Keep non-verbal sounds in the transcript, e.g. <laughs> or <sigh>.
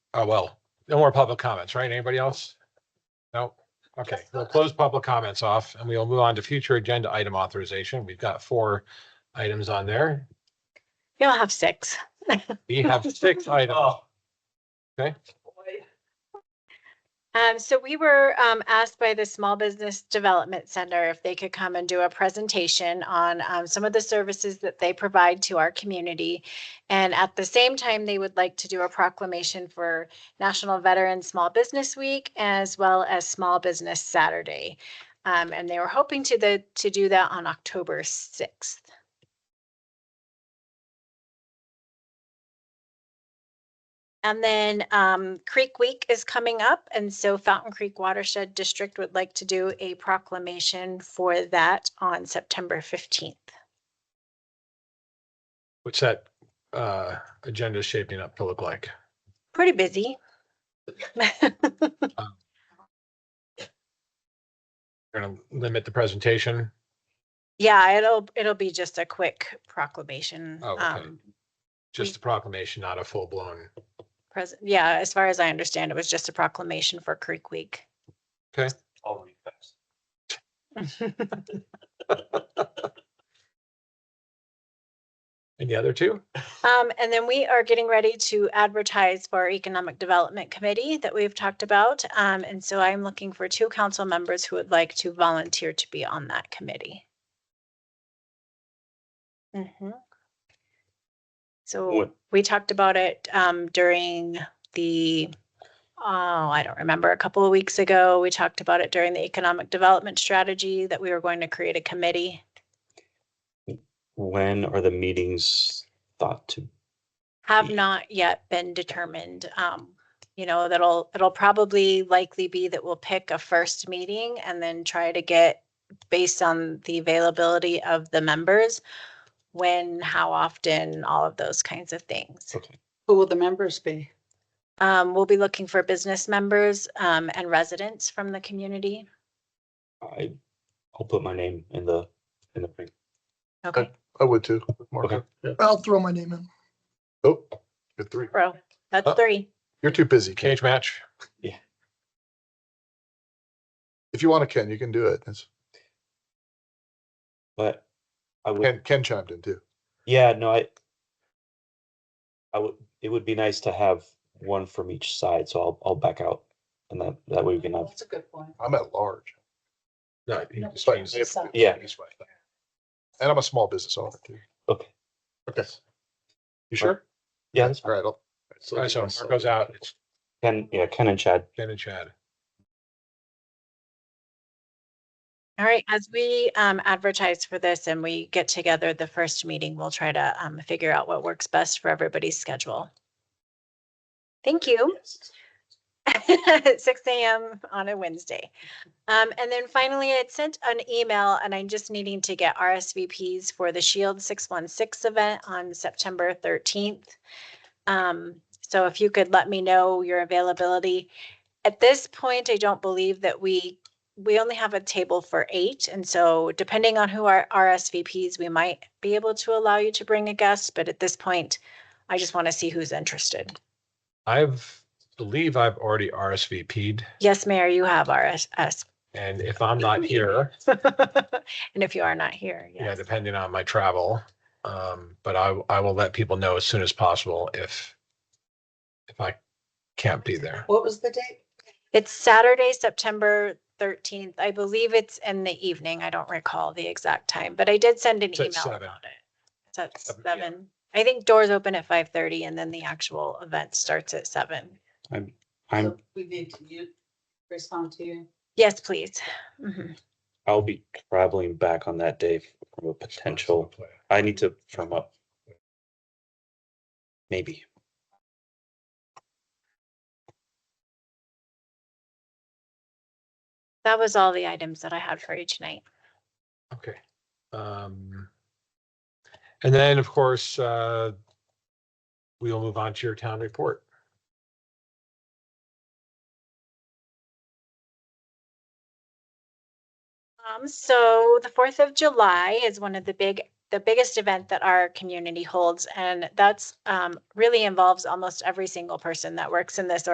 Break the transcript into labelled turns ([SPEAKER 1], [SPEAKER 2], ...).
[SPEAKER 1] Oh, well, no more public comments, right? Anybody else? No? Okay, we'll close public comments off and we'll move on to future agenda item authorization. We've got four items on there.
[SPEAKER 2] You'll have six.
[SPEAKER 1] We have six items.
[SPEAKER 2] Um, so we were, um, asked by the Small Business Development Center if they could come and do a presentation on, um, some of the services that they provide to our community. And at the same time, they would like to do a proclamation for National Veteran Small Business Week as well as Small Business Saturday. Um, and they were hoping to the, to do that on October sixth. And then um, Creek Week is coming up, and so Fountain Creek Watershed District would like to do a proclamation for that on September 15th.
[SPEAKER 1] What's that uh agenda shaping up to look like?
[SPEAKER 2] Pretty busy. <laughs>
[SPEAKER 1] We're gonna limit the presentation.
[SPEAKER 2] Yeah, it'll, it'll be just a quick proclamation.
[SPEAKER 1] Oh, okay.
[SPEAKER 2] um,
[SPEAKER 1] Just the proclamation, not a full blown.
[SPEAKER 2] pres- Yeah, as far as I understand, it was just a proclamation for Creek Week.
[SPEAKER 3] I'll read fast.
[SPEAKER 1] And the other two?
[SPEAKER 2] Um, and then we are getting ready to advertise for our Economic Development Committee that we've talked about. Um, and so I'm looking for two council members who would like to volunteer to be on that committee. Mhm. So
[SPEAKER 3] Would-
[SPEAKER 2] we talked about it, um, during the, oh, I don't remember, a couple of weeks ago. We talked about it during the Economic Development Strategy that we were going to create a committee.
[SPEAKER 3] When are the meetings thought to?
[SPEAKER 2] have
[SPEAKER 3] Yeah.
[SPEAKER 2] not yet been determined. Um, you know, that'll, it'll probably likely be that we'll pick a first meeting and then try to get, based on the availability of the members, when, how often, all of those kinds of things.
[SPEAKER 3] Okay.
[SPEAKER 4] Who will the members be?
[SPEAKER 2] Um, we'll be looking for business members, um, and residents from the community.
[SPEAKER 3] I, I'll put my name in the, in the thing.
[SPEAKER 2] Okay,
[SPEAKER 5] I would too. Mark.
[SPEAKER 3] Okay.
[SPEAKER 5] Yeah.
[SPEAKER 6] I'll throw my name in.
[SPEAKER 5] Oh, you're three.
[SPEAKER 2] bro, that's
[SPEAKER 1] Uh,
[SPEAKER 2] three.
[SPEAKER 5] You're too busy. Ken.
[SPEAKER 1] Cage match?
[SPEAKER 5] If you want to, Ken, you can do it. That's-
[SPEAKER 3] But I would,
[SPEAKER 5] Ken, Ken chimed in too.
[SPEAKER 3] yeah, no, I, I would, it would be nice to have one from each side, so I'll, I'll back out. And that, that way we can have,
[SPEAKER 4] a good point.
[SPEAKER 5] I'm at large.
[SPEAKER 1] No, he
[SPEAKER 4] No.
[SPEAKER 1] just
[SPEAKER 5] But
[SPEAKER 1] means-
[SPEAKER 5] if-
[SPEAKER 3] Yeah.
[SPEAKER 5] And I'm a small business owner too.
[SPEAKER 3] okay,
[SPEAKER 5] Okay. You sure?
[SPEAKER 3] yeah, that's
[SPEAKER 5] All
[SPEAKER 3] fine.
[SPEAKER 5] right. I'll-
[SPEAKER 1] All right, so Mark goes out, it's
[SPEAKER 3] Ken, yeah, Ken and Chad.
[SPEAKER 1] Ken and Chad.
[SPEAKER 2] All right, as we um, advertise for this and we get together the first meeting, we'll try to um, figure out what works best for everybody's schedule. Thank you. At <laughs> Six AM on a Wednesday. Um, And then finally, I had sent an email and I'm just needing to get RSVPs for the Shield 616 event on September 13th. Um, So if you could let me know your availability. At this point, I don't believe that we we only have a table for eight, and so depending on who our RSVPs, we might be able to allow you to bring a guest, but at this point, I just want to see who's interested.
[SPEAKER 1] I've, believe I've already RSVP'd,
[SPEAKER 2] Yes, Mayor, you have RSS.
[SPEAKER 1] and if I'm not here,
[SPEAKER 2] And if you are not here,
[SPEAKER 1] yeah,
[SPEAKER 2] yes.
[SPEAKER 1] depending on my travel, um, but I, I will let people know as soon as possible if if I can't be there.
[SPEAKER 4] What was the date?
[SPEAKER 2] It's Saturday, September thirteenth. I believe it's in the evening. I don't recall the exact time, but I did send an
[SPEAKER 1] It's at
[SPEAKER 2] email
[SPEAKER 1] seven.
[SPEAKER 2] about it. It's at
[SPEAKER 1] Seven p.m.
[SPEAKER 2] seven. I think doors open at five thirty and then the actual event starts at seven.
[SPEAKER 3] I'm, I'm,
[SPEAKER 4] So We need to you respond to you.
[SPEAKER 2] Yes, please. Mhm.
[SPEAKER 3] I'll be traveling back on that day from a potential, I need to firm up. Maybe.
[SPEAKER 2] That was all the items that I had for you tonight.
[SPEAKER 1] Okay. Um, and then, of course, uh, we will move on to your town report.
[SPEAKER 2] Um, so the Fourth of July is one of the big the biggest event that our community holds. And that's um, really involves almost every single person that works in this